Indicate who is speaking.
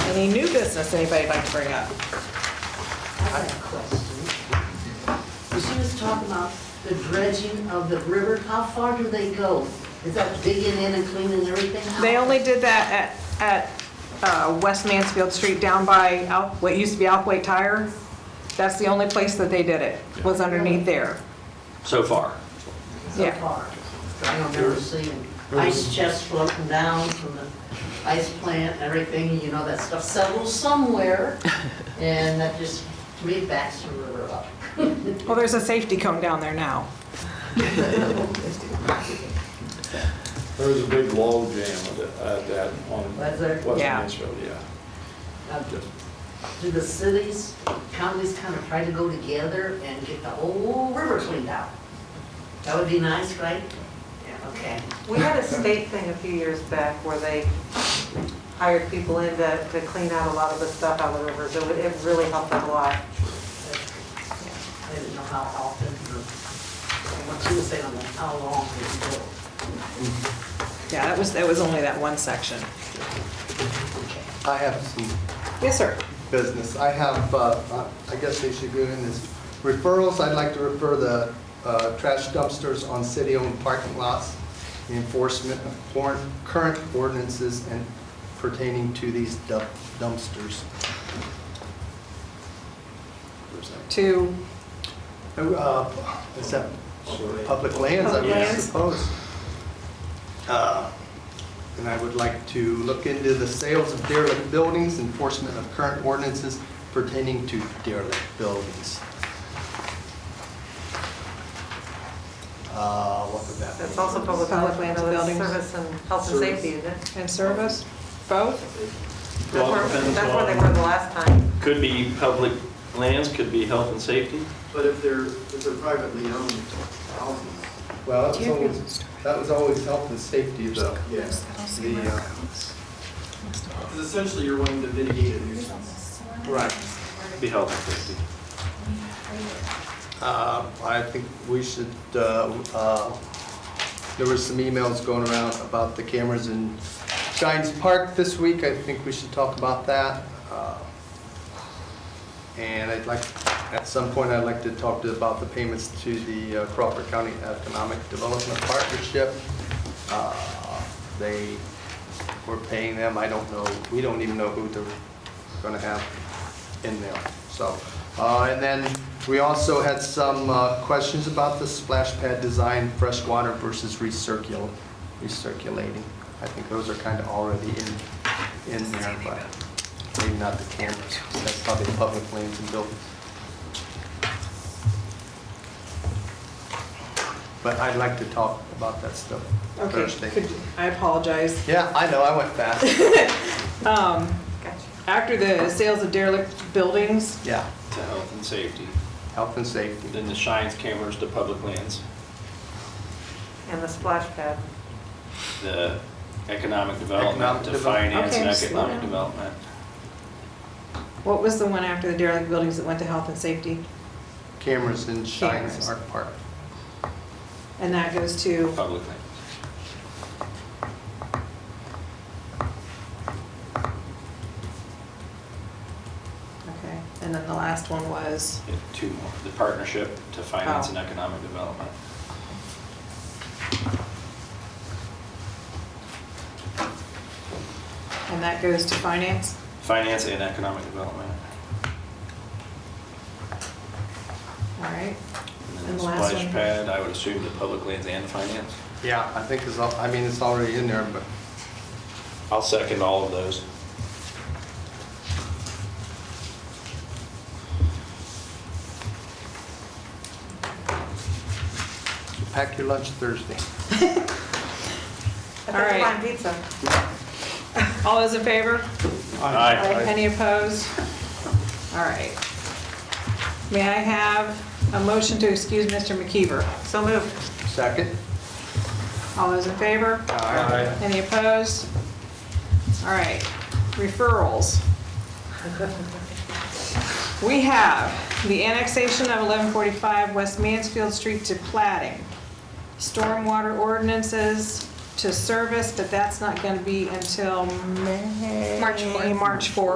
Speaker 1: Any new business anybody'd like to bring up?
Speaker 2: I have a question. She was talking about the dredging of the river, how far do they go? Is that digging in and cleaning everything out?
Speaker 1: They only did that at, at uh, West Mansfield Street down by Al- what used to be Alquate Tire. That's the only place that they did it, was underneath there.
Speaker 3: so far.
Speaker 2: So
Speaker 1: yeah.
Speaker 2: far. I don't ever see them.
Speaker 4: There was-
Speaker 2: Ice chests floating down from the ice plant, everything, you know, that stuff settles somewhere. And that just, to me, backs the river up.
Speaker 1: Well, there's a safety cone down there now.
Speaker 4: There was a big log jam at that- at that on
Speaker 2: Was there?
Speaker 4: West
Speaker 1: Yeah.
Speaker 4: Mansfield, yeah.
Speaker 2: Now, Um, Do the cities, counties kind of try to go together and get the whole river cleaned out? That would be nice, right? Yeah, okay.
Speaker 5: We had a state thing a few years back where they hired people in to, to clean out a lot of the stuff out of the rivers. It would- it really helped us a lot.
Speaker 2: I didn't know how often, or what you were saying, on how long it go.
Speaker 1: Yeah, that was, that was only that one section.
Speaker 6: I have some
Speaker 1: Yes, sir.
Speaker 6: business. I have, uh, I guess they should go in as referrals. I'd like to refer the uh, trash dumpsters on city-owned parking lots, the enforcement of cor- current ordinances and pertaining to these dump- dumpsters.
Speaker 1: To,
Speaker 6: Uh, Is that public lands, I
Speaker 1: Public
Speaker 6: would
Speaker 1: lands.
Speaker 6: suppose? Uh, And I would like to look into the sales of derelict buildings, enforcement of current ordinances pertaining to derelict buildings. Uh, What would that be?
Speaker 5: It's also public
Speaker 1: Public
Speaker 5: health,
Speaker 1: lands,
Speaker 5: you know, that's
Speaker 1: buildings.
Speaker 5: service and health and
Speaker 4: Service.
Speaker 5: safety, isn't it?
Speaker 1: and service, both?
Speaker 5: That's where, that's where they were the last time.
Speaker 3: Could be public lands, could be health and safety.
Speaker 7: But if they're, if they're privately owned houses,
Speaker 6: Well, that was always, that was always health and safety, though.
Speaker 7: yes,
Speaker 6: The, uh,
Speaker 7: because essentially you're wanting to mitigate a nuisance.
Speaker 6: Right.
Speaker 3: Be health and safety.
Speaker 6: Uh, I think we should, uh, uh, there were some emails going around about the cameras in Shines Park this week. I think we should talk about that. Uh, And I'd like, at some point, I'd like to talk to- about the payments to the uh, Crawford County Economic Development Partnership. Uh, They were paying them, I don't know, we don't even know who they're going to have in there, so. uh, And then we also had some uh, questions about the splash pad design, freshwater versus recircul, recirculating. I think those are kind of already in, in there, but maybe not the cameras. That's probably public lanes and buildings. But I'd like to talk about that stuff
Speaker 1: Okay.
Speaker 6: Thursday.
Speaker 1: could- I apologize.
Speaker 6: Yeah, I know, I went fast.
Speaker 5: Gotcha.
Speaker 1: After the sales of derelict buildings,
Speaker 6: Yeah,
Speaker 3: To health and safety.
Speaker 6: health and safety.
Speaker 3: Then the shines cameras to public lands.
Speaker 5: And the splash pad.
Speaker 3: The economic development
Speaker 6: Economic
Speaker 3: to
Speaker 6: develop-
Speaker 3: finance and
Speaker 1: Okay, slow down.
Speaker 3: economic development.
Speaker 1: what was the one after the derelict buildings that went to health and safety?
Speaker 6: Cameras in
Speaker 1: Cameras.
Speaker 6: Shines Art Park.
Speaker 1: And that goes to,
Speaker 3: Public lands.
Speaker 1: okay, and then the last one was?
Speaker 3: Yeah, Two more. The partnership to finance and economic development.
Speaker 1: And that goes to finance?
Speaker 3: Finance and economic development.
Speaker 1: All right.
Speaker 3: And then
Speaker 1: And
Speaker 3: the
Speaker 1: the last
Speaker 3: splash
Speaker 1: one.
Speaker 3: pad, I would assume the public lands and finance.
Speaker 6: Yeah, I think it's, al- I mean, it's already in there, but
Speaker 3: I'll second all of those.
Speaker 6: pack your lunch Thursday.
Speaker 5: I
Speaker 1: All
Speaker 5: think
Speaker 1: right.
Speaker 5: fine pizza.
Speaker 1: All those in favor?
Speaker 3: Aye.
Speaker 1: Any opposed? All right. May I have a motion to excuse Mr. McKeever?
Speaker 5: So moved.
Speaker 6: Second?
Speaker 1: All those in favor?
Speaker 6: Aye.
Speaker 1: Any opposed? All right, referrals. We have the annexation of 1145 West Mansfield Street to plating, stormwater ordinances to service, but that's not going to be until May. March 4th. March 4th.